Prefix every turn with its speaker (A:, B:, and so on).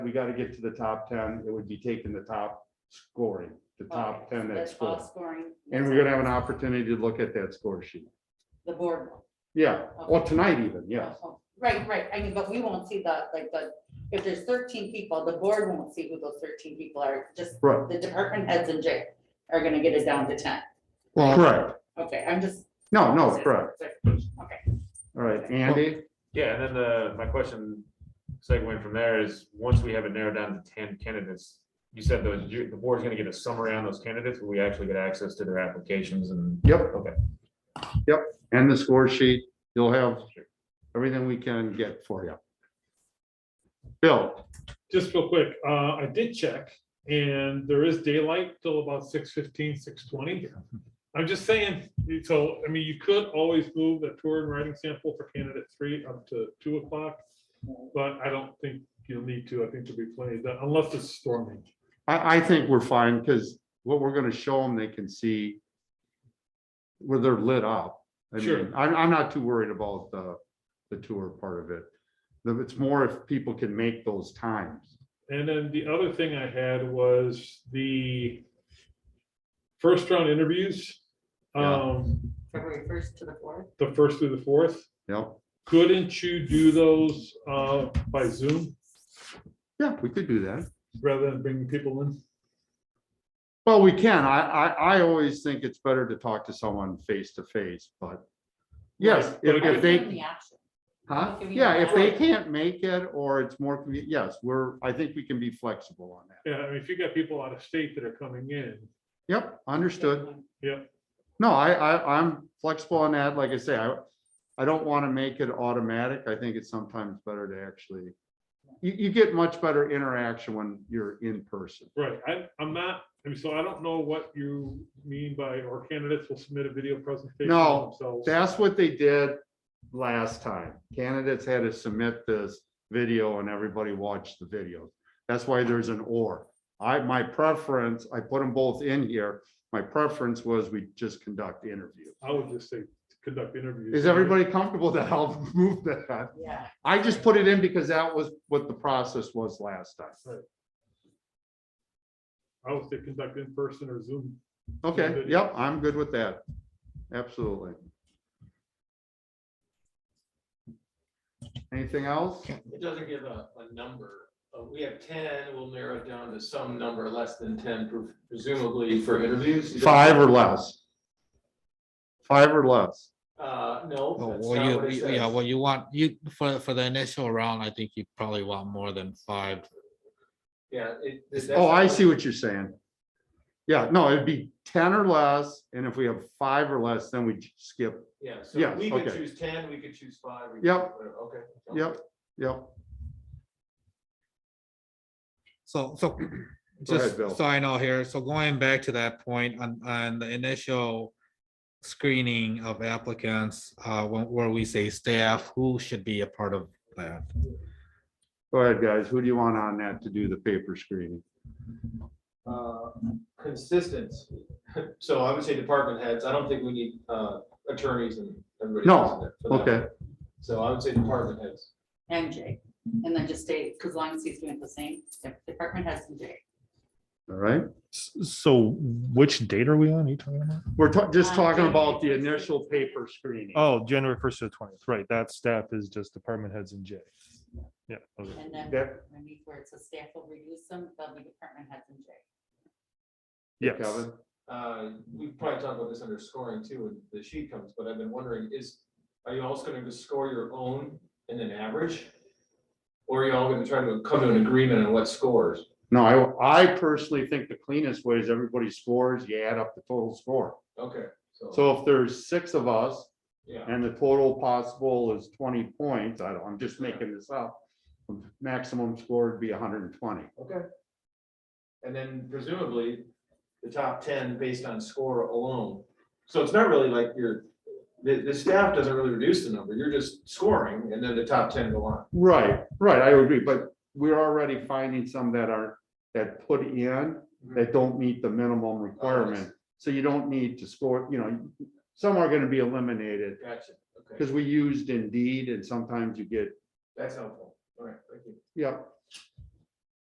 A: we gotta get to the top ten, it would be taking the top scoring, the top
B: Okay,
A: ten
B: so
A: that
B: that's all
A: score.
B: Scoring.
A: And we're gonna have an opportunity to look at that score sheet.
B: The board. will.
A: Yeah, well,
B: Okay.
A: tonight even, yes.
B: Oh, Right, right, I mean, but we won't see the, like, the, if there's thirteen people, the board won't see who those thirteen people are, just
A: Right.
B: the department heads and Jay are gonna get it down to ten.
A: Correct.
B: Okay, I'm just.
A: No, no, Oh, correct.
B: Okay.
A: All right, Andy,
C: Yeah, and then the, my question segueing from there is, once we have it narrowed down to ten candidates, you said the, ju- the board's gonna get a summary on those candidates, will we actually get access to their applications and?
A: Yep.
C: Okay.
A: Yep, and the score sheet, you'll have everything we can get for you. Bill,
D: just real quick, uh, I did check and there is daylight till about 6:15, 6:20. fifteen, six twenty. I'm just saying, so, I mean, you could always move the tour and writing sample for candidate three up to two o'clock. But I don't think you'll need to. I think there'll be plenty, of that, unless it's storming.
A: I, I think we're fine, because what we're gonna show them, they can see where they're lit up. I mean,
D: Sure.
A: I'm, I'm not too worried about the, the tour part of it. The- It's more if people can make those times.
D: And then the other thing I had was the first round interviews.
A: Yeah.
D: Um,
B: February first to the fourth.
D: the first through the fourth,
A: Yep,
D: couldn't you do those, uh, by Zoom?
A: yeah, we could do that.
D: rather than bringing people in.
A: Well, we can. I, I, I always think it's better to talk to someone face to face, but yes,
D: Right,
A: if
D: but it
A: if
D: could-
A: they, huh?
B: Give you
A: Yeah, if they
B: that.
A: can't make it or it's more, convenient, yes, we're, I think we can be flexible on that.
D: Yeah, I mean, if you got people out of state that are coming in,
A: Yep, understood.
D: yeah,
A: No, I, I, I'm flexible on that. Like I say, I, I don't want to make it automatic. I think it's sometimes better to actually, you, you get much better interaction when you're in person.
D: right, I, I'm not, I mean, so I don't know what you mean by, or candidates will submit a video presentation
A: No,
D: of themselves.
A: That's what they did last time. Candidates had to submit this video and everybody watched the video. That's why there's an or. I, my preference, I put them both in here. My preference was we just conduct interviews.
D: I would just say, conduct interviews.
A: Is everybody comfortable that I'll move that?
B: Yeah.
A: I just put it in because that was what the process was last time.
D: I would say conduct in person or Zoom.
A: Okay, yep, I'm good with that. Absolutely. Anything else?
E: It doesn't give a, a number. Uh, We have ten, we'll narrow it down to some number less than ten pre- presumably for interviews.
A: Five or less. Five or less.
E: Uh, no.
A: Oh,
F: Well,
E: that's
F: Oh, well,
E: not
F: you,
E: what it
F: you- yeah,
E: says.
F: well, you want, you, for, for the initial round, I think you probably want more than five.
E: Yeah. it- that's
A: Oh, I
E: not-
A: see what you're saying. Yeah, no, it'd be ten or less, and if we have five or less, then we skip.
E: Yeah,
A: yeah,
E: so we could
A: okay.
E: choose ten, we could choose five. we could
A: Yep.
E: choose whatever, Okay.
A: Yep, yep.
F: So, so,
A: ahead,
F: just
A: Bill.
F: so I know here, so going back to that point on, on the initial screening of applicants, uh, when- where we say staff, who should be a part of that?
A: Go ahead, guys. Who do you want on that to do the paper screening?
E: Uh, Consistency. So I would say department heads. I don't think we need, uh, attorneys and everybody.
A: No,
E: else in there for that.
A: Okay,
E: So I would say department heads.
B: And Jay, and then just stay, because long as he's doing the same, the department heads and Jay.
A: all right.
G: S- So which date are we on? Are you talking about?
A: We're ta- just
B: Uh,
A: talking
B: January
A: about the
B: first.
A: initial paper screening.
G: Oh, January first to the twentieth, right, that staff is just department heads and J. Yeah, okay.
B: And then
A: Yep.
B: underneath where it says staff will reuse them, they'll be department heads and Jay.
G: yes,
A: Kevin,
E: Uh, we probably talk about this under scoring too, when the sheet comes, but I've been wondering is, are you also gonna just score your own and then average? Or are you all gonna try to come to an agreement on what scores?
A: no, I, I personally think the cleanest way is everybody scores, you add up the total score.
E: Okay, so,
A: So if there's six of us,
E: yeah,
A: And the total possible is twenty points. I don't, I'm just making this up. Maximum score would be hundred and twenty.
E: okay. And then presumably, the top ten based on score alone. So it's not really like your, the, the staff doesn't really reduce the number, you're just scoring and then the top ten go on.
A: Right, right, I agree, but we're already finding some that are, that put in, that don't meet the minimum requirement. So you don't need to score, you know, some are gonna be eliminated,
E: Gotcha, okay,
A: because we used Indeed and sometimes you get,
E: that's helpful, all right, thank you.
A: yep.